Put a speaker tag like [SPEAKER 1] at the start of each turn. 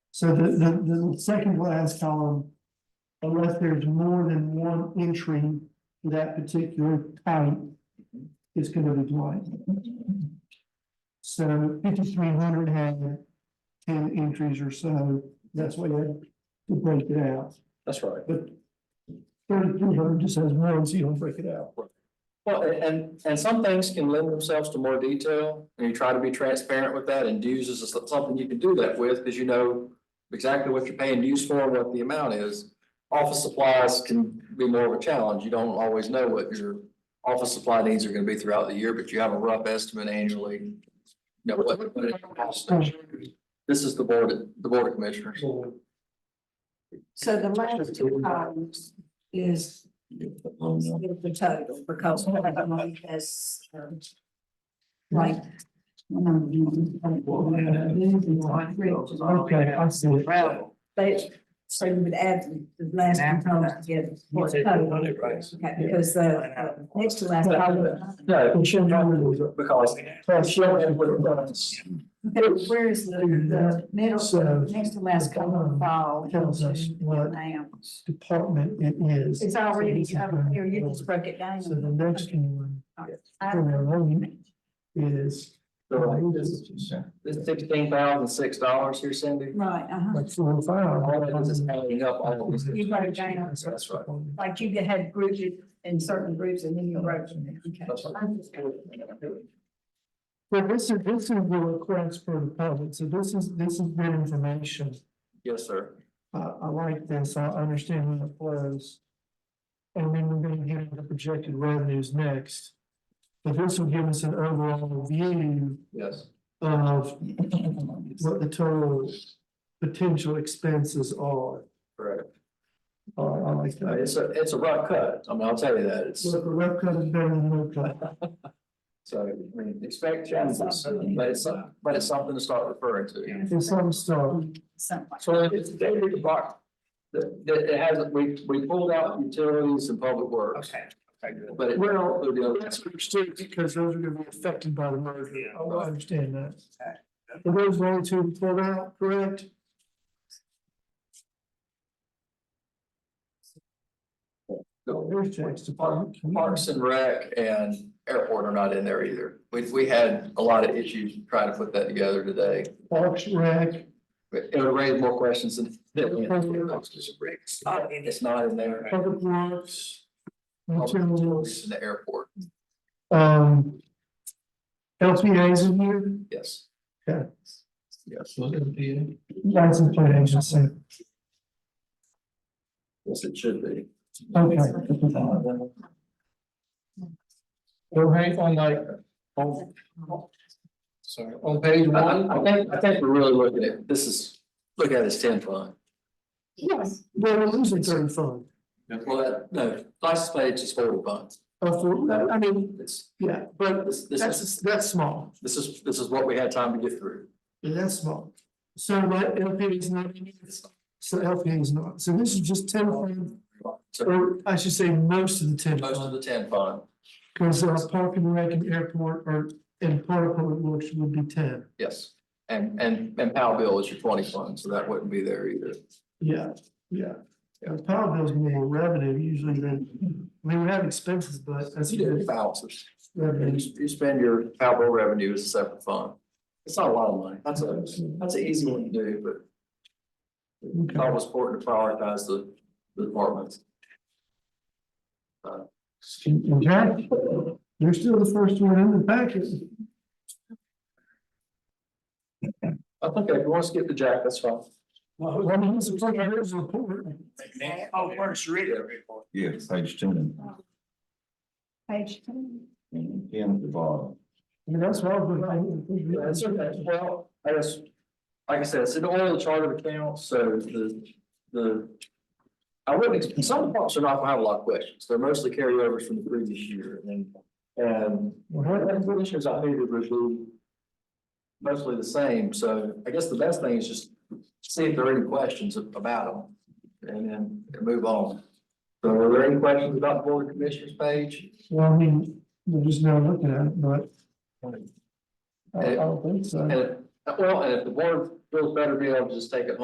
[SPEAKER 1] So the, the, the second last column, unless there's more than one entry for that particular type, is gonna be blank. So fifty-three hundred had ten entries or so, that's why you had to break it out,
[SPEAKER 2] That's right.
[SPEAKER 1] but thirty-three hundred just has one, so you don't break it out.
[SPEAKER 2] Well, a- and, and some things can lend themselves to more detail, and you try to be transparent with that, and dues is so- something you can do that with, because you know exactly what you're paying dues for, and what the amount is. Office supplies can be more of a challenge. You don't always know what your office supply needs are gonna be throughout the year, but you have a rough estimate annually. You know, what, what it costs. This is the board, the board of commissioners.
[SPEAKER 3] So the last two columns is the total because one of them has, um, like.
[SPEAKER 1] Okay, I see it.
[SPEAKER 3] But, so you would add the last two columns together. for the total. Okay, because the uh, next to last column.
[SPEAKER 2] No,
[SPEAKER 1] I'm sure you remember
[SPEAKER 2] because.
[SPEAKER 1] those.
[SPEAKER 3] but Where is the, the
[SPEAKER 1] So,
[SPEAKER 3] middle, next to last column fall?
[SPEAKER 1] Tells us what
[SPEAKER 3] Now,
[SPEAKER 1] department it is.
[SPEAKER 3] it's already, over here, you just broke it down.
[SPEAKER 1] So the next one,
[SPEAKER 3] I-
[SPEAKER 1] from our own, is.
[SPEAKER 2] This sixteen thousand six dollars here, Cindy.
[SPEAKER 3] Right, uh-huh.
[SPEAKER 1] Like four or
[SPEAKER 2] All that is is
[SPEAKER 1] five.
[SPEAKER 2] adding up all of these.
[SPEAKER 3] You got it, Dana.
[SPEAKER 2] That's right.
[SPEAKER 3] Like you had groups in certain groups and then you wrote them. Okay.
[SPEAKER 2] That's right.
[SPEAKER 1] Well, this is, this is the request for the public, so this is, this is good information.
[SPEAKER 2] Yes, sir.
[SPEAKER 1] I, I like this, I understand how it flows. And then we're gonna get the projected revenues next. But this will give us an overall view
[SPEAKER 2] Yes.
[SPEAKER 1] of what the total potential expenses are.
[SPEAKER 2] Correct.
[SPEAKER 1] Uh, I like
[SPEAKER 2] Uh,
[SPEAKER 1] that.
[SPEAKER 2] It's a, it's a rough cut. I mean, I'll tell you that. It's,
[SPEAKER 1] Look, a rough cut is better than no cut.
[SPEAKER 2] so, I mean, expect challenges, but it's, some- but it's something to start referring to.
[SPEAKER 1] There's some stuff.
[SPEAKER 3] Something like.
[SPEAKER 2] So it's dated box. That, that it hasn't, we, we pulled out utilities and public works. Okay. But it.
[SPEAKER 1] Well,
[SPEAKER 2] the deal-
[SPEAKER 1] that's understood because those are gonna be affected by the merger.
[SPEAKER 2] Yeah.
[SPEAKER 1] Oh, I understand that. Are those the only two pulled out, correct? There's Jack's department.
[SPEAKER 2] Parks and Rec and Airport are not in there either. We, we had a lot of issues trying to put that together today.
[SPEAKER 1] Parks, rec,
[SPEAKER 2] But It would raise more questions than. It's not in there.
[SPEAKER 1] public works.
[SPEAKER 2] Utilities
[SPEAKER 1] Materials,
[SPEAKER 2] In the airport,
[SPEAKER 1] um. LPAs in here,
[SPEAKER 2] yes.
[SPEAKER 1] Yeah.
[SPEAKER 2] Yes.
[SPEAKER 1] license plate agency,
[SPEAKER 2] Yes, it should be.
[SPEAKER 1] okay.
[SPEAKER 4] Right on like,
[SPEAKER 1] um,
[SPEAKER 4] on, sorry, on page
[SPEAKER 2] I, I- I
[SPEAKER 4] one,
[SPEAKER 2] think, I think we're really looking at, this is, look at this ten fund.
[SPEAKER 1] Yes. Well, we're losing certain funds.
[SPEAKER 2] Well, that- no, license plate is forward funds.
[SPEAKER 1] Uh, for- I mean,
[SPEAKER 2] It's,
[SPEAKER 1] yeah, but
[SPEAKER 2] this, this is,
[SPEAKER 1] that's, that's small.
[SPEAKER 2] this is, this is what we had time to get through.
[SPEAKER 1] Yeah, That's small. So what LP is not, so LP is not, so this is just ten, fund,
[SPEAKER 2] So
[SPEAKER 1] or I should say most of the ten.
[SPEAKER 2] most of the ten fund,
[SPEAKER 1] Cause uh, Park and Rec and Airport or, and part of Public Works would be ten,
[SPEAKER 2] yes. And, and, and Powell bill is your twenty fund, so that wouldn't be there either.
[SPEAKER 1] yeah, yeah. Uh, Power bills more revenue usually than, I mean, we have expenses, but that's.
[SPEAKER 2] You do balances.
[SPEAKER 1] Revenue.
[SPEAKER 2] You s- you spend your Powell bill revenue as a separate fund. It's not a lot of money. That's a, that's an easy one to do, but
[SPEAKER 1] Okay.
[SPEAKER 2] Thought it was important to prioritize the, the departments.
[SPEAKER 1] In fact, you're still the first one in the packet.
[SPEAKER 2] I think if you want to skip to Jack, that's fine.
[SPEAKER 1] Well, I mean, this is like a report.
[SPEAKER 2] Oh, first read it.
[SPEAKER 5] Yeah, page ten,
[SPEAKER 3] Page two.
[SPEAKER 5] and ten at the bottom.
[SPEAKER 1] I mean, that's what I was.
[SPEAKER 2] That's okay. Well, I guess, like I said, it's in all the chart of accounts, so the, the. I wouldn't, ex- some departments are not gonna have a lot of questions. They're mostly carryovers from the previous year and, and Well, the conditions I needed would be mostly the same, so I guess the best thing is just see if there are any questions about them and then move on. So are there any questions about the board of commissioners page?
[SPEAKER 1] Well, I mean, we're just now looking at it, but. I I don't think so.
[SPEAKER 2] And, well, and if the board feels better, be able to just take it home